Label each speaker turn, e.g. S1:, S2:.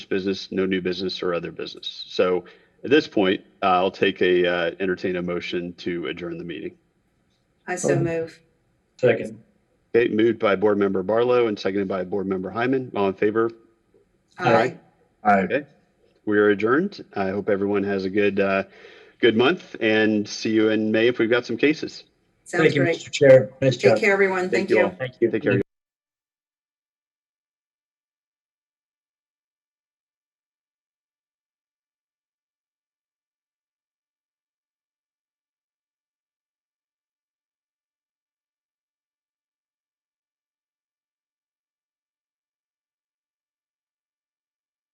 S1: business, no new business or other business. So at this point, I'll take a, uh, entertain a motion to adjourn the meeting.
S2: I so move.
S3: Second.
S1: Okay, moved by Board Member Barlow and seconded by Board Member Hyman. All in favor?
S3: Aye.
S2: Aye.
S3: Aye.
S1: We are adjourned. I hope everyone has a good, uh, good month and see you in May if we've got some cases.
S2: Sounds
S3: Thank you,
S2: great.
S3: Mr. Chair. Nice job.
S2: Take care, everyone. Thank
S1: you
S2: you.
S1: all.
S3: Thank you.
S1: Take care.